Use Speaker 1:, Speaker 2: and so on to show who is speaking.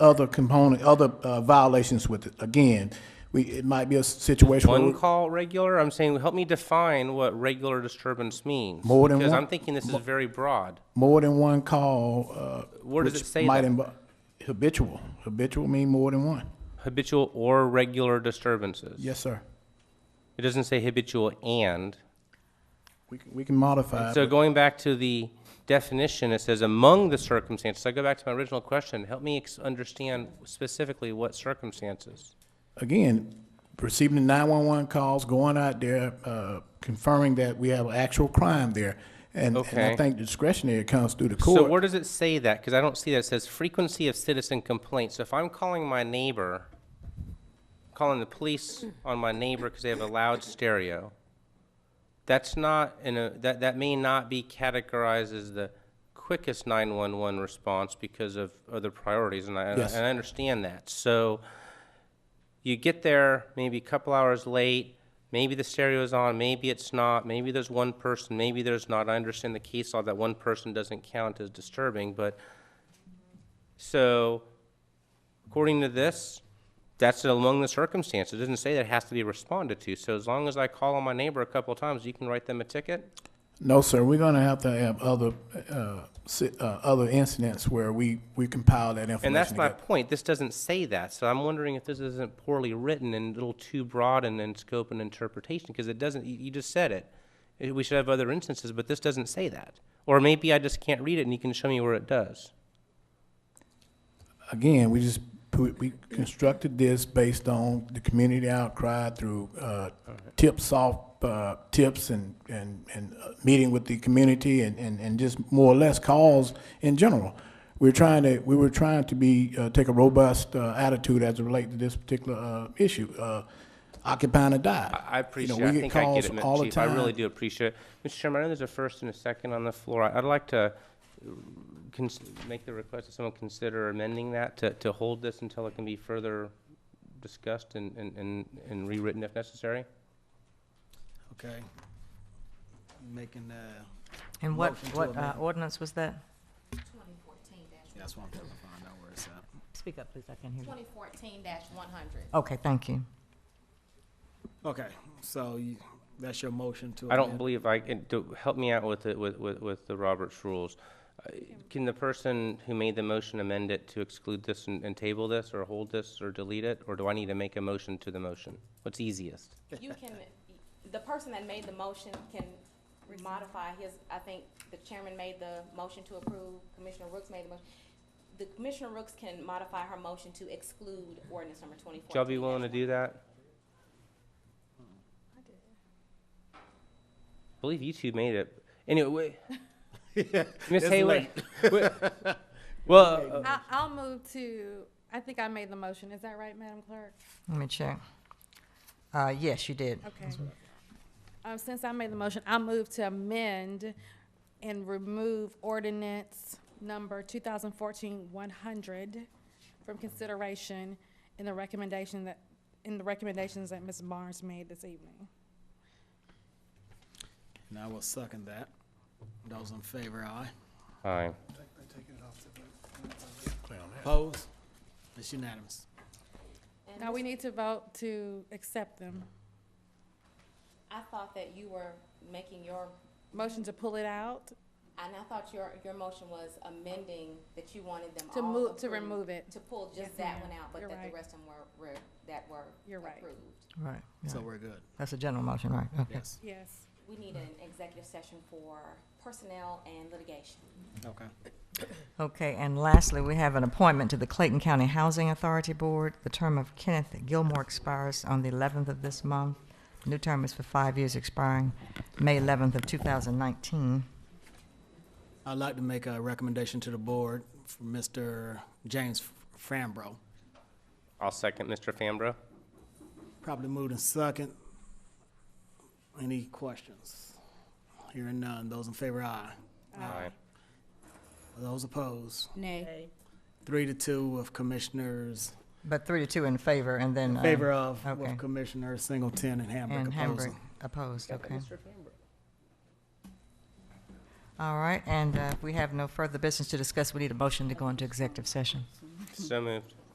Speaker 1: other component, other uh, violations with it. Again, we, it might be a situation where
Speaker 2: One call regular? I'm saying, help me define what regular disturbance means.
Speaker 1: More than
Speaker 2: Because
Speaker 1: one-
Speaker 2: I'm thinking this is very broad.
Speaker 1: more than one call, uh,
Speaker 2: Where does
Speaker 1: which
Speaker 2: it say
Speaker 1: might
Speaker 2: that?
Speaker 1: invo- Habitual, habitual mean more than one.
Speaker 2: Habitual or regular disturbances.
Speaker 1: Yes, sir.
Speaker 2: It doesn't say habitual and.
Speaker 1: We can, we can modify.
Speaker 2: So
Speaker 1: it.
Speaker 2: going back to the definition, it says among the circumstances. I go back to my original question. Help me ex- understand specifically what circumstances.
Speaker 1: Again, receiving the nine-one-one calls, going out there, uh, conferring that we have an actual crime there. And, and I
Speaker 2: Okay.
Speaker 1: think discretionary comes through the
Speaker 2: So
Speaker 1: court.
Speaker 2: where does it say that? Because I don't see that. It says frequency of citizen complaints. So if I'm calling my neighbor, calling the police on my neighbor because they have a loud stereo, that's not, in a, that, that may not be categorized as the quickest 911 response because of other priorities, and I, and I-
Speaker 1: Yes.
Speaker 2: and I understand that. So you get there maybe a couple hours late, maybe the stereo's on, maybe it's not, maybe there's one person, maybe there's not. I understand the case law that one person doesn't count as disturbing, but, so, according to this, that's among the circumstances. It doesn't say that it has to be responded to. So as long as I call on my neighbor a couple times, you can write them a ticket?
Speaker 1: No, sir, we're gonna have to have other, uh, si- uh, other incidents where we, we compile that information.
Speaker 2: And that's my
Speaker 1: together.
Speaker 2: point. This doesn't say that. So I'm wondering if this isn't poorly written and a little too broad in, in scope and interpretation, because it doesn't, you, you just said it. Eh, We should have other instances, but this doesn't say that. Or maybe I just can't read it and you can show me where it does.
Speaker 1: again, we just, put- we constructed this based on the community outcry through uh, tips off, uh, tips and, and, and uh, meeting with the community and, and and just more or less calls in general. We're trying to, we were trying to be, uh, take a robust uh, attitude as it relates to this particular uh, issue. Uh, Occupying or die.
Speaker 2: I appreciate
Speaker 1: You know,
Speaker 2: it.
Speaker 1: we get
Speaker 2: I think I
Speaker 1: calls
Speaker 2: get it,
Speaker 1: all
Speaker 2: Mr.
Speaker 1: the
Speaker 2: Chief. I really
Speaker 1: time.
Speaker 2: do appreciate it. Mr. Chairman, I know there's a first and a second on the floor. I- I'd like to uh, cons- make the request that someone consider amending that to, to hold this until it can be further discussed and, and- and, and rewritten if necessary.
Speaker 3: Okay. Making, uh,
Speaker 4: And what,
Speaker 3: Motion to
Speaker 4: what uh,
Speaker 3: amend.
Speaker 4: ordinance was that?
Speaker 3: that's what I'm trying to find out where it's at.
Speaker 4: Speak up, please, I can hear you.
Speaker 5: 2014-100.
Speaker 4: Okay, thank you.
Speaker 3: Okay, so you, that's your motion to.
Speaker 2: I don't
Speaker 3: amend.
Speaker 2: believe I can, do, help me out with it, with, with, with the Roberts rules. Uh, Can the person who made the motion amend it to exclude this and, and table this, or hold this, or delete it? Or do I need to make a motion to the motion? What's easiest?
Speaker 5: You can, the person that made the motion can modify his, I think the chairman made the motion to approve, Commissioner Rooks made the motion. The Commissioner Rooks can modify her motion to exclude ordinance number 2014.
Speaker 2: Would y'all be willing to do that? I believe you two made it. Anyway, Miss Haley. wh- Well, uh,
Speaker 6: I- I'll move to, I think I made the motion. Is that right, Madam Clerk?
Speaker 4: Let me check. Uh, yes, you did.
Speaker 6: Okay. Um, Since I made the motion, I'll move to amend and remove ordinance number 2014-100 from consideration in the recommendation that, in the recommendations that Ms. Barnes made this evening.
Speaker 3: And I will second that. Those in favor, aye.
Speaker 2: uh, aye.
Speaker 3: Opposed? It's unanimous.
Speaker 5: And
Speaker 6: Now, we
Speaker 5: Ms.
Speaker 6: need to vote to accept them.
Speaker 5: I thought that you were making your,
Speaker 6: Motion to pull it out,
Speaker 5: and I thought your, your motion was amending that you wanted them all.
Speaker 6: to move, to
Speaker 5: approved-
Speaker 6: remove it.
Speaker 5: To pull
Speaker 6: Yes,
Speaker 5: just that
Speaker 6: ma'am.
Speaker 5: one out, but
Speaker 6: You're
Speaker 5: that the
Speaker 6: right.
Speaker 5: rest of them were, were, that were
Speaker 6: You're right.
Speaker 5: approved.
Speaker 4: Right, yeah.
Speaker 3: So we're good.
Speaker 4: that's a general motion, right, okay.
Speaker 3: Yes.
Speaker 6: Yes.
Speaker 5: We need an executive session for personnel and litigation.
Speaker 3: Okay.
Speaker 4: Okay, and lastly, we have an appointment to the Clayton County Housing Authority Board. The term of Kenneth Gilmore expires on the eleventh of this month. New term is for five years expiring May eleventh of two thousand nineteen.
Speaker 3: I'd like to make a recommendation to the board for Mr. James Frambro.
Speaker 2: I'll second Mr. Fambro.
Speaker 3: Probably moved in second. Any questions? Hearing none. Those in favor, aye.
Speaker 2: Aye.
Speaker 3: Those opposed?
Speaker 5: Nay.
Speaker 3: Three to two of Commissioners,
Speaker 4: But three to two in favor, and then. uh,
Speaker 3: favor of,
Speaker 4: okay.
Speaker 3: with Commissioner Singleton and Hamburg
Speaker 4: And Hamburg
Speaker 3: opposing.
Speaker 4: opposed, okay. All right, and uh, if we have no further business to discuss, we need a motion to go into executive session.
Speaker 2: So moved.